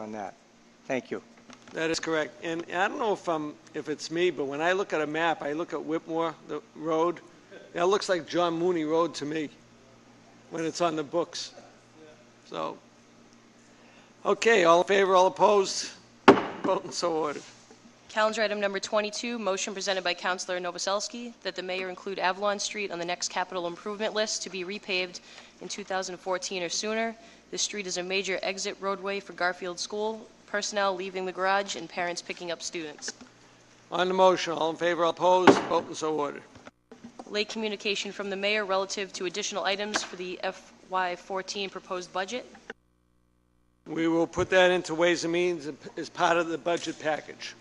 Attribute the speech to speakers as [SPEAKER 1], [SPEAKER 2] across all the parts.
[SPEAKER 1] on that. Thank you.
[SPEAKER 2] That is correct. And I don't know if I'm, if it's me, but when I look at a map, I look at Whitmore, the road, that looks like John Mooney Road to me, when it's on the books. So, okay, all in favor, all opposed? Vote and so ordered.
[SPEAKER 3] Calendar item number 22, motion presented by Councilor Novoselsky that the mayor include Avalon Street on the next capital improvement list to be repaved in 2014 or sooner. This street is a major exit roadway for Garfield School, personnel leaving the garage and parents picking up students.
[SPEAKER 2] On the motion, all in favor, all opposed? Vote and so ordered.
[SPEAKER 3] Late communication from the mayor relative to additional items for the FY14 proposed budget.
[SPEAKER 2] We will put that into Ways and Means as part of the budget package.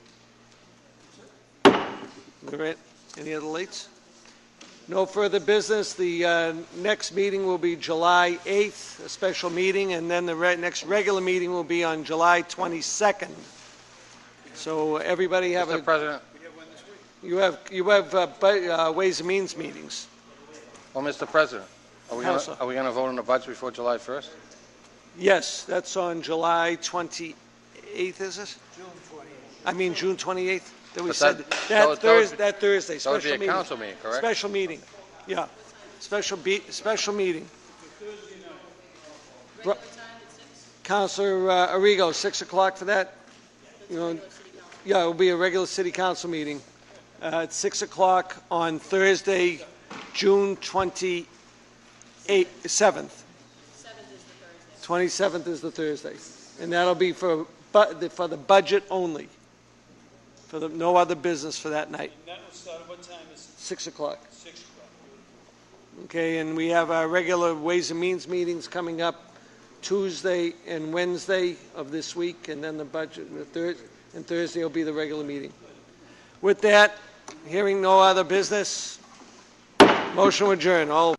[SPEAKER 2] All right, any other leads? No further business. The uh, next meeting will be July 8th, a special meeting, and then the re- next regular meeting will be on July 22nd. So everybody have
[SPEAKER 4] Mr.
[SPEAKER 2] a,
[SPEAKER 4] President,
[SPEAKER 2] you have, you have uh, bu- uh, Ways and Means meetings.
[SPEAKER 4] well, Mr. President, are we
[SPEAKER 2] Counsel.
[SPEAKER 4] gonna, are we gonna vote on the budget before July 1st?
[SPEAKER 2] Yes, that's on July 28th, is it? June 28th. I mean, June 28th, that we
[SPEAKER 4] But
[SPEAKER 2] said,
[SPEAKER 4] that- that
[SPEAKER 2] that
[SPEAKER 4] would- that would
[SPEAKER 2] Thursday,
[SPEAKER 4] be-
[SPEAKER 2] that Thursday,
[SPEAKER 4] that would be
[SPEAKER 2] special
[SPEAKER 4] a
[SPEAKER 2] meeting.
[SPEAKER 4] council meeting, correct?
[SPEAKER 2] Special meeting, yeah. Special be, special meeting. Bro- Counselor uh, Arrigo, 6 o'clock for that? You know, yeah, it'll be a regular city council meeting uh, at 6 o'clock on Thursday, June 28th, 7th. 27th is the Thursday, and that'll be for, bu- for the budget only, for the, no other business for that night.
[SPEAKER 5] And that will start at what time is it?
[SPEAKER 2] 6 o'clock.
[SPEAKER 5] Six o'clock.
[SPEAKER 2] Okay, and we have our regular Ways and Means meetings coming up Tuesday and Wednesday of this week, and then the budget, and the third, and Thursday will be the regular meeting. With that, hearing no other business, motion adjourned. All